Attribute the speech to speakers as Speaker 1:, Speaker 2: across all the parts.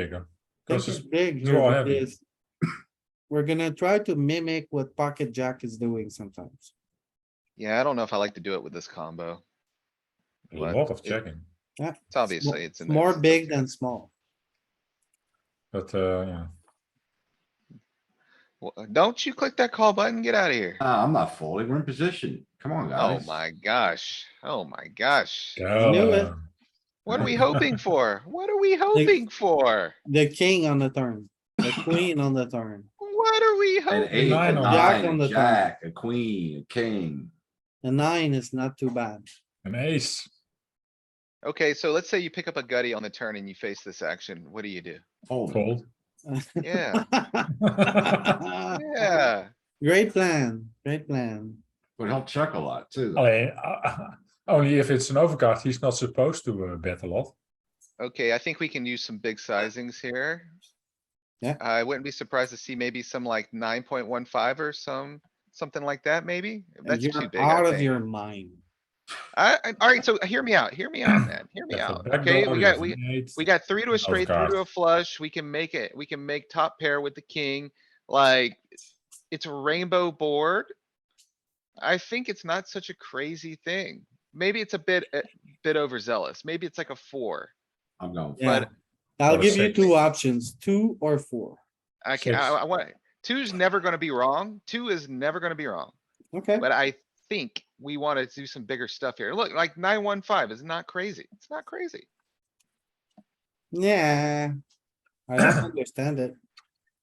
Speaker 1: bigger.
Speaker 2: This
Speaker 1: Because
Speaker 2: is
Speaker 1: it's
Speaker 2: big
Speaker 1: they're all
Speaker 2: here
Speaker 1: heavy.
Speaker 2: is. We're gonna try to mimic what pocket jack is doing sometimes.
Speaker 3: Yeah, I don't know if I like to do it with this combo.
Speaker 1: a
Speaker 3: But
Speaker 1: lot of
Speaker 3: it-
Speaker 1: checking,
Speaker 3: It's obviously, it's. in there,
Speaker 2: More
Speaker 3: it's up
Speaker 2: big
Speaker 3: here.
Speaker 2: than small.
Speaker 1: but, uh, yeah.
Speaker 3: Wha- Don't you click that call button? Get out of here.
Speaker 4: Ah, I'm not folding. We're in position. Come on,
Speaker 3: Oh
Speaker 4: guys.
Speaker 3: my gosh. Oh my gosh.
Speaker 2: knew it.
Speaker 1: damn.
Speaker 3: What are we hoping for? What are we hoping for?
Speaker 2: The king on the turn, the queen on the turn,
Speaker 3: What are we
Speaker 4: An
Speaker 3: hoping?
Speaker 4: eight, a
Speaker 1: nine on the-
Speaker 2: Jack
Speaker 4: nine,
Speaker 2: on
Speaker 4: a
Speaker 2: the turn.
Speaker 4: jack, a queen, a king.
Speaker 2: the nine is not too bad.
Speaker 1: An ace,
Speaker 3: Okay, so let's say you pick up a gutty on the turn and you face this action. What do you do?
Speaker 4: Fold.
Speaker 1: fold.
Speaker 3: Yeah,
Speaker 2: Great
Speaker 3: yeah.
Speaker 2: plan, great plan.
Speaker 4: But he'll check a lot too. though.
Speaker 1: Alleen, uh, only if it's an overcard, he's not supposed to uh, bet a lot.
Speaker 3: Okay, I think we can use some big sizings here.
Speaker 2: Yeah.
Speaker 3: I wouldn't be surprised to see maybe some like nine point one five or some, something like that, maybe. That's
Speaker 2: You're
Speaker 3: too big,
Speaker 2: Out
Speaker 3: I
Speaker 2: of
Speaker 3: think.
Speaker 2: your mind.
Speaker 3: I, I- alright, so hear me out, hear me out, man, hear me
Speaker 1: Yeah, for
Speaker 3: out.
Speaker 1: backdoor,
Speaker 3: Okay, we
Speaker 1: you
Speaker 3: got,
Speaker 1: have
Speaker 3: we,
Speaker 1: an eight.
Speaker 3: we got three to a
Speaker 1: Of
Speaker 3: straight, three to a
Speaker 1: cards.
Speaker 3: flush. We can make it, we can make top pair with the king, like, it's a rainbow board. I think it's not such a crazy thing. Maybe it's a bit, a bit overzealous. Maybe it's like a four.
Speaker 4: I'm going.
Speaker 2: Yeah.
Speaker 3: But-
Speaker 2: I'll
Speaker 1: Or
Speaker 2: give you
Speaker 1: six.
Speaker 2: two options, two or four.
Speaker 3: I can, I,
Speaker 1: Six.
Speaker 3: I want, two's never gonna be wrong. Two is never gonna be wrong,
Speaker 2: Okay,
Speaker 3: but I think we wanna do some bigger stuff here. Look, like nine, one, five is not crazy. It's not crazy.
Speaker 2: yeah. I don't understand it.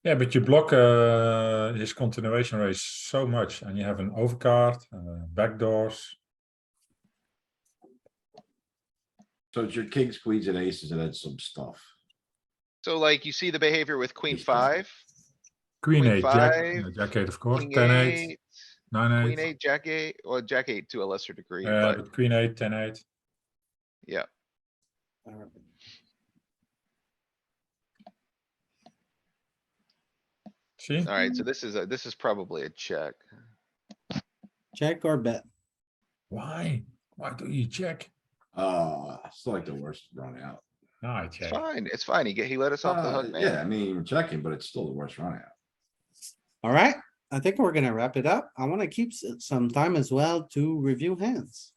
Speaker 1: Yeah, but you block uh, his continuation raise so much and you have an overcard, uh, backdoors.
Speaker 4: So it's your kings, queens and aces and then some stuff.
Speaker 3: So like you see the behavior with queen
Speaker 4: Just doesn't-
Speaker 3: five,
Speaker 1: Queen
Speaker 3: Queen
Speaker 1: eight, jack,
Speaker 3: five,
Speaker 1: uh, jack eight, of course,
Speaker 3: king
Speaker 1: ten eight,
Speaker 3: eight,
Speaker 1: nine
Speaker 3: queen
Speaker 1: eight.
Speaker 3: eight, jack eight, or jack eight to a lesser degree,
Speaker 1: Uh,
Speaker 3: but
Speaker 1: but queen eight, ten eight.
Speaker 3: yeah.
Speaker 2: Alright.
Speaker 1: See?
Speaker 3: Alright, so this is a, this is probably a check.
Speaker 2: Check or bet?
Speaker 1: Why? Why do you check?
Speaker 4: Uh, it's like the worst run out.
Speaker 1: No, I
Speaker 3: It's
Speaker 1: check.
Speaker 3: fine, it's fine. He get, he let us off the
Speaker 4: Uh,
Speaker 3: hook,
Speaker 4: Yeah, I
Speaker 3: man.
Speaker 4: mean, you're checking, but it's still the worst run out.
Speaker 2: Alright, I think we're gonna wrap it up. I wanna keep s- some time as well to review hands.